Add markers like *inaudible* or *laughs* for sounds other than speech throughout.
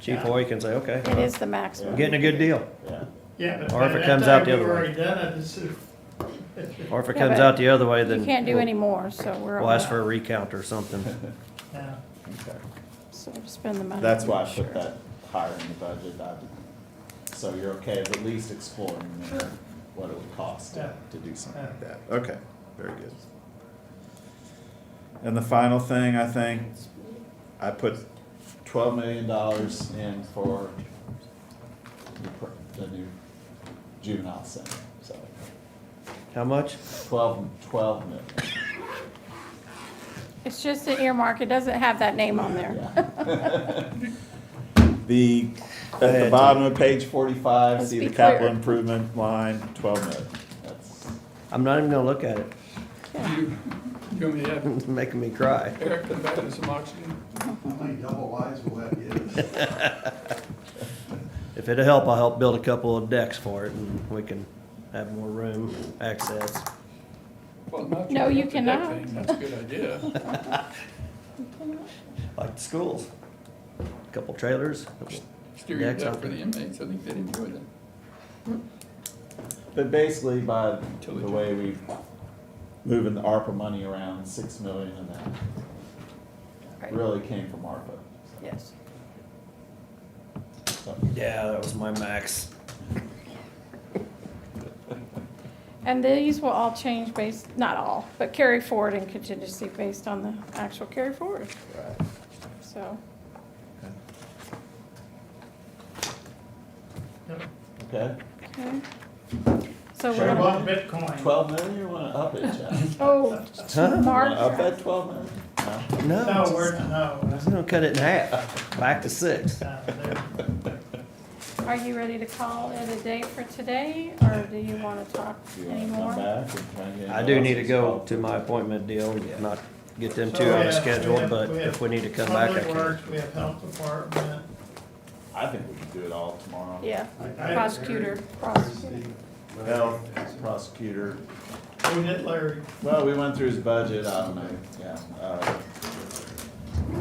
Chief Hoy can say, okay, It is the I'm maximum. getting a good deal. Yeah. Yeah, but Or by if it that comes time, out the other way. We've already done it, it's, Or if it Yeah, comes but out the other way, then. You can't do we'll- any more, so we're. We'll all ask for a out. recount or something. yeah. Okay. So spend the money. That's why I Sure. put that higher in the budget. I did- So you're okay with at least exploring there what it would cost to to do something like that? Okay, very good. And the final thing, I think, I put twelve million dollars in for the pr- the new juvenile center, so How much? twelve, twelve million. It's just an earmark. It doesn't have that name on there. Yeah. *laughs* The, at ahead, the Tim. bottom of page forty-five, Let's see be the capital clear. improvement line, twelve million. That's, I'm not even gonna look at it. *laughs* You, you want me to have It's making me cry. Eric come back with some oxygen? How many double wides will that give us? If it'll help, I'll help build a couple of decks for it and we can have more room access. Well, not No, sure you about the deck cannot. thing. That's a good idea. Like the schools. Couple trailers. Steer your Deck's deck out for the there. inmates, I think they'd enjoy that. but basically by the way we moving the ARPA money around, six million of that Right. really came from ARPA. Yes. So, Yeah, that was my max. And these will all change based, not all, but carry forward and contingency based on the actual carry forward. right. So Okay, Okay. So Sure. we're I gonna, bought Bitcoin. twelve million, you wanna up it, Jeff? You oh, Wanna up Mark, that twelve million? No? No, No, we're, no, I'm gonna cut it in half, back to six. no, there- are you ready to call it a day for today, or do you wanna talk You wanna come anymore? back and try and get I do need to go another to my appointment deal and not get them two So, out yeah, of schedule, we have- but have if we need to come back, I Public can. Works, we have Health Department, I think we can do it all tomorrow. Yeah, I- I- prosecutor, prosecutor. Health, prosecutor, who did Larry? Well, we went through his budget, I don't know, yeah. uh,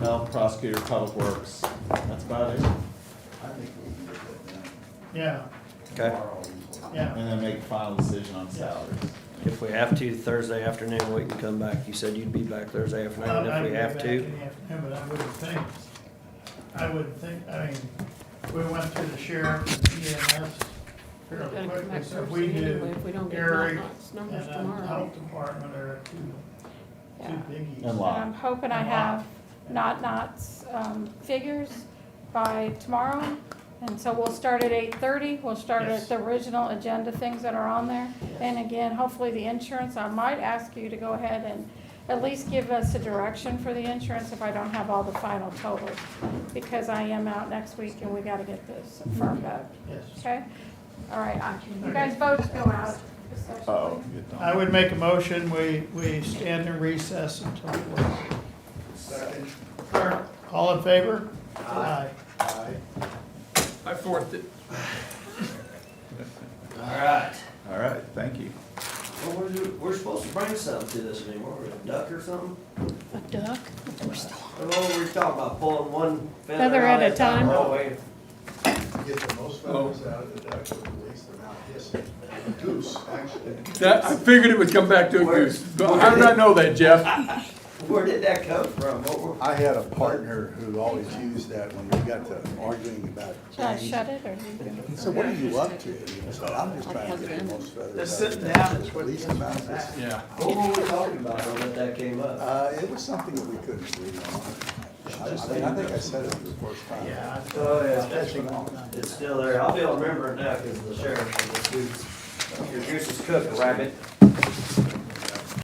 Health, prosecutor, public works, that's about it. I think we can get that done Yeah, Okay, tomorrow. yeah. And then make a final decision on salaries. if we have to Thursday afternoon, we can come back. You said you'd be back Thursday afternoon I- I if can we go have back to. in the afternoon, But I wouldn't think, I wouldn't think, I mean, we went through the sheriff and EMS fairly Gotta come quickly, back so Thursday we do anyway, if we don't get Eric Knox and um, numbers then tomorrow. Health Department are two, two Yeah. biggies. And And I'm law, hoping I have not knots um, figures by tomorrow. And so we'll start at eight thirty, we'll start Yes. at the original agenda things that are on there. And again, hopefully the insurance, I might ask you to go ahead and at least give us a direction for the insurance if I don't have all the final totals. Because I am out next week and we gotta get this firmed up, Yes. okay? All right, I- you guys vote to go out. oh, you don't. I would make a motion, we, we stand in recess until four. Second, All in favor? Aye. aye. I forced it. All right, thank you. Well, we're, we're supposed to bring something to this anymore, a duck or something? A duck? Oh, we're talking about pulling one Feather at a time. Oh, Get the most feathers out of the duck with the least amount hissing. Goose, actually. That, I figured it would come back to a goose. But How did I know that, Jeff? Where did that come from? What were- I had a partner who always used that when we got to arguing about Should I things. shut it or? you can- So what are you up to? He said, I'm just trying to get the most feathers. Just out of sitting the down duck is with what the least gets amount me of back. hissing." Yeah. What were we talking about when that came up? Uh, it was something that we couldn't agree on. I I mean, I think I said it for the first time. Yeah. I- Oh, yeah. that's what I'm done. It's still there. I'll be able to remember it now because the sheriff, and the dude's, your goose is cooked, rabbit.